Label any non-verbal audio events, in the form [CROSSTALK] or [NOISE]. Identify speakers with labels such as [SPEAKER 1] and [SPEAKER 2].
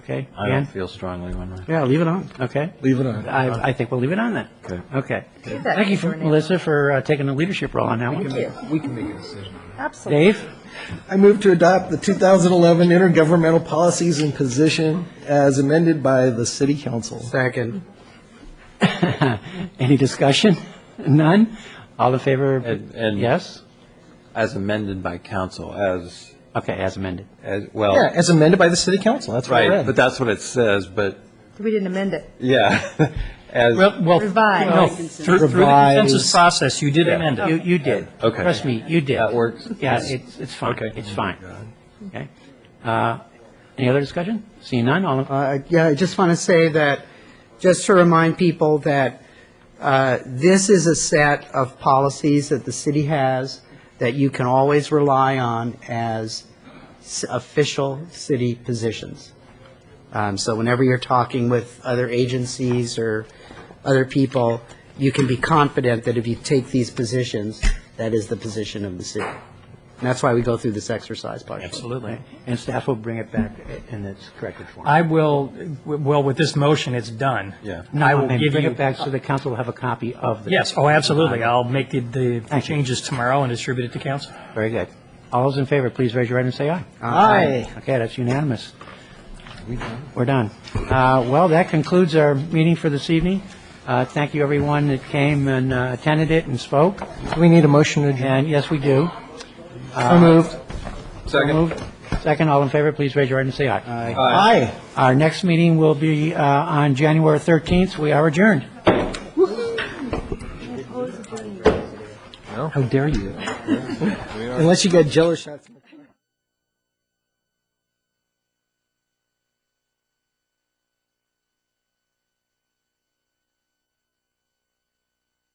[SPEAKER 1] Okay,
[SPEAKER 2] I
[SPEAKER 1] Ann?
[SPEAKER 2] don't feel strongly one way.
[SPEAKER 1] Yeah, leave it on, okay?
[SPEAKER 3] Leave it on.
[SPEAKER 1] I, I think we'll leave it on then.
[SPEAKER 2] Okay.
[SPEAKER 1] Okay.
[SPEAKER 4] that
[SPEAKER 1] Thank you, for-
[SPEAKER 4] Renee.
[SPEAKER 1] Melissa, for uh, taking a leadership role on that one.
[SPEAKER 4] you.
[SPEAKER 3] We can make a decision.
[SPEAKER 4] Absolutely.
[SPEAKER 1] Dave?
[SPEAKER 3] I move to adopt the 2011 Intergovernmental Policies and Position as amended by the City Council.
[SPEAKER 1] Second. Any discussion? [LAUGHS] None? All in favor?
[SPEAKER 2] And- and-
[SPEAKER 1] Yes?
[SPEAKER 2] As amended by council, as,
[SPEAKER 1] Okay, as amended.
[SPEAKER 2] as,
[SPEAKER 3] Yeah,
[SPEAKER 2] well,
[SPEAKER 3] as amended by the City Council, that's what I
[SPEAKER 2] right, but
[SPEAKER 3] read.
[SPEAKER 2] that's what it says, but,
[SPEAKER 4] We didn't amend it.
[SPEAKER 2] yeah. [LAUGHS] As,
[SPEAKER 1] well.
[SPEAKER 4] Revised.
[SPEAKER 1] No, through, through the consensus
[SPEAKER 3] Revised.
[SPEAKER 1] process, you did amend
[SPEAKER 2] it.
[SPEAKER 1] You, you did.
[SPEAKER 2] Oh, Okay.
[SPEAKER 1] Trust me, you did.
[SPEAKER 2] That works.
[SPEAKER 1] Yeah, it's, it's fine.
[SPEAKER 2] Okay. Oh,
[SPEAKER 1] It's fine. Okay. Uh, Any other discussion? Seeing none, all in,
[SPEAKER 5] Uh, Yeah, I just want to say that, just to remind people that uh, this is a set of policies that the city has that you can always rely on as s- official city positions. Um, So whenever you're talking with other agencies or other people, you can be confident that if you take these positions, that is the position of the city. And that's why we go through this exercise partially.
[SPEAKER 1] absolutely. And staff will bring it back in its corrected form.
[SPEAKER 6] I will, well, with this motion, it's done.
[SPEAKER 2] Yeah.
[SPEAKER 1] No,
[SPEAKER 6] I will
[SPEAKER 1] and
[SPEAKER 6] give
[SPEAKER 1] Bring
[SPEAKER 6] you,
[SPEAKER 1] it back so the council will have a copy of Uh, this.
[SPEAKER 6] yes, oh, absolutely. I'll make the, the
[SPEAKER 1] Thank you.
[SPEAKER 6] changes tomorrow and distribute it to council.
[SPEAKER 1] Very good. All those in favor, please raise your hand and say aye.
[SPEAKER 5] Uh,
[SPEAKER 3] Aye.
[SPEAKER 1] Okay, that's unanimous. We're done. Uh, Well, that concludes our meeting for this evening. Uh, Thank you, everyone that came and uh, attended it and spoke.
[SPEAKER 3] Do we need a motion to adjourn?
[SPEAKER 1] And yes, we do.
[SPEAKER 3] So moved.
[SPEAKER 2] second,
[SPEAKER 1] Moved. Second, all in favor, please raise your hand and say aye.
[SPEAKER 3] Aye.
[SPEAKER 1] Our next meeting will be uh, on January 13th. We are adjourned.
[SPEAKER 3] Unless you got jello shots.